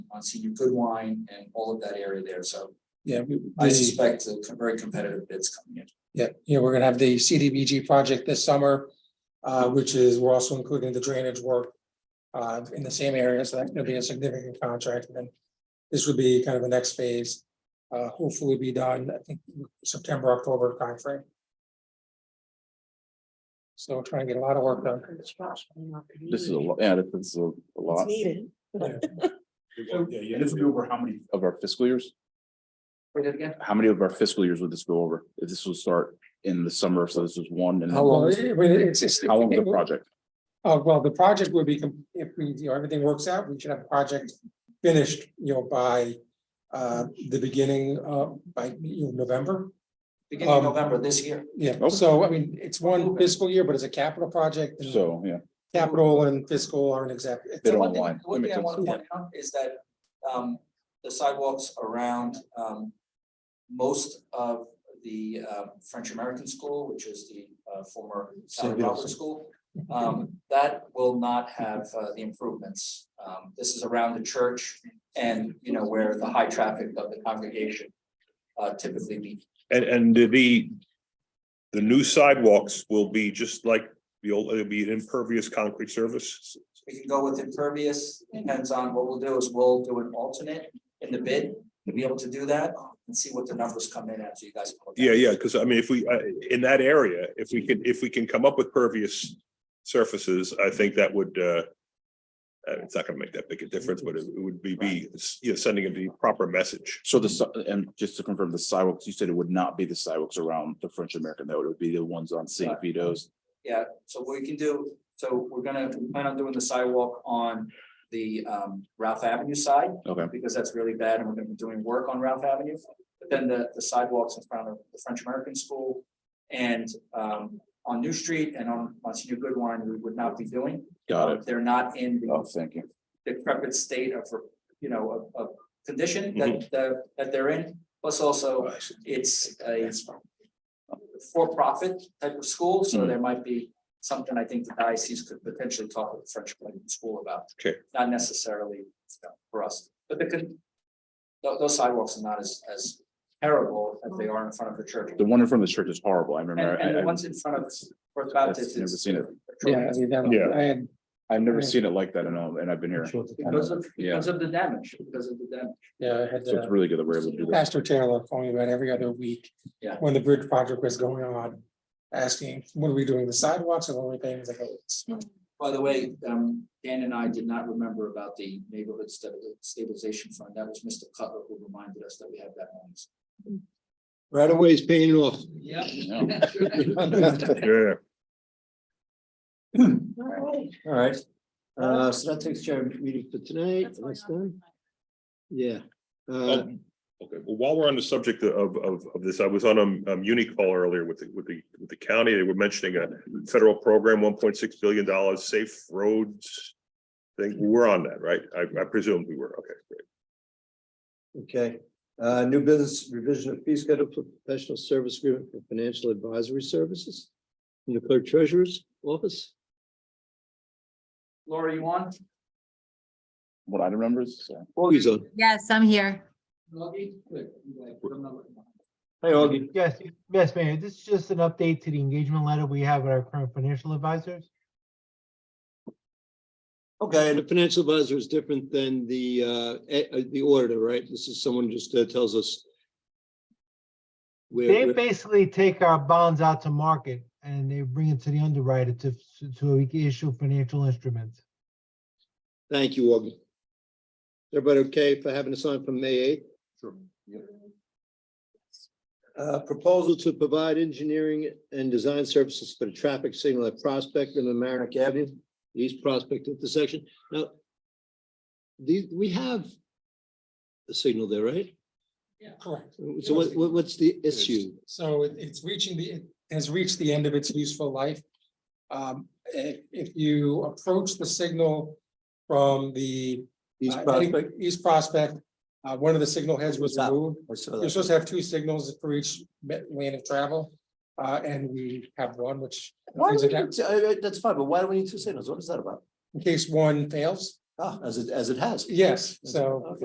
on Senior Goodwine and all of that area there, so Yeah, we, I the- suspect the co- very competitive bids coming in. yeah, you know, we're gonna have the CDBG project this summer, uh, which is, we're also including the drainage work. Uh, in the same area, so that's gonna be a significant contract, and then this would be kind of the next phase. Uh, hopefully be done, I think, September, October timeframe. So we're trying to get a lot of work done. This is a, lo- yeah, this is a a lot Needed. Yeah, this would be over how many? of our fiscal years. Wait, again? How many of our fiscal years would this go over? If this will start in the summer, so this is one and. How long, is it? Well, it's, it's. How long is the project? Uh, well, the project would be, com- if we, you know, everything works out, we should have the project finished, you know, by uh, the beginning, uh, by, you know, November. Beginning of Um, November this year. Yeah, Okay. so I mean, it's one fiscal year, but it's a capital project. and So, yeah, Capital and fiscal aren't exact. it's They a- don't One thing- online. One That thing I makes want to sense. point out is that um the sidewalks around um most of the uh French American School, which is the uh former Sally Saint Roberts School. Um, that will not have uh the improvements. Um, this is around the church and, you know, where the high traffic of the congregation uh typically meet. And, and the, the new sidewalks will be just like the old, it'll be an impervious concrete surface. We can go with impervious, depends on what we'll do is we'll do an alternate in the bid to be able to do that and see what the numbers come in after you guys. look at it. Yeah, yeah, because I mean, if we, uh, in that area, if we can, if we can come up with pervious surfaces, I think that would, uh, uh, it's not gonna make that big a difference, but it would be, be, you know, sending the proper message. so the, si- and just to confirm, the sidewalks, you said it would not be the sidewalks around the French American, though. It would be the ones on St. Right. Vito's. Yeah, so what we can do, so we're gonna plan on doing the sidewalk on the um Ralph Avenue side. Okay. Because that's really bad and we're gonna be doing work on Ralph Avenue, but then the the sidewalks in front of the French American School. And um on New Street and on Monsignor Goodwine, we would not be doing. Got it. They're not in the Oh, thank you. decrepit state of, you know, of, of condition Mm-hmm. that, that, that they're in. Plus Oh, also, it's a for-profit type of school, so Mhm. there might be something I think the diocese could potentially talk with the French Colombian School about. Okay. Not necessarily you know, for us, but the, con- tho- those sidewalks are not as, as terrible as they are in front of the church. The one in front of the church is horrible. I And, remember, and the I, I- ones in front of, for about I've this never is. seen it. Yeah, I mean, that- Yeah. I had, I've never seen it like that in all, and I've been here. So Because of, Yeah. because of the damage, because of the damage. yeah, I had it's uh, really good that we're able to do that. Pastor Taylor calling me about every other week. Yeah. When the bridge project was going on, asking, what are we doing, the sidewalks and only things like, oh, it's- By the way, um, Dan and I did not remember about the neighborhood Sta- stabilization fund. That was Mr. Cutler who reminded us that we have that money. Right away is paying off. Yeah. Yeah. All right. Uh, so that takes care of meeting for tonight. That's done. Yeah. Uh, Um, Okay, well, while we're on the subject of, of, of this, I was on a, um uni call earlier with, the with the, with the county. They were mentioning a federal program, one point six billion dollars, safe roads. Thing, we're on that, right? I, I presume we were, okay, great. okay. Uh, new business revision of fee schedule for professional service agreement for financial advisory services. From the clerk treasurer's office. Laura, you on? What I remember is, uh, Augie's on. Yes, I'm here. Hi, Augie. Yes, yes, Mayor, this is just an update to the engagement letter we have with our current financial advisors. Okay, and the financial advisor is different than the, uh, eh, uh, the auditor, right? This is someone who just uh, tells us. where- They where- basically take our bonds out to market and they bring it to the underwriter to, to we can issue financial instruments. Thank you, Augie. Everybody okay for having us on from May eighth? Uh, proposal to provide engineering and design services for the traffic signal at Prospect and Amerik Avenue, East Prospect intersection. Now, these, we have a signal there, right? correct. So what, what- what's the issue? So it- it's reaching the, it has reached the end of its useful life. Um, if, if you approach the signal from the. East uh, Prospect? East Prospect, uh, one of the signal heads was Stop. removed. I saw You're that. supposed to have two signals for each ma- lane of travel, uh, and we have one, which Why things do we, like need to- uh, uh, that's fine, but why do we need two signals? What is that about? in case one fails, Ah, as it, as it has. yes, so. Okay.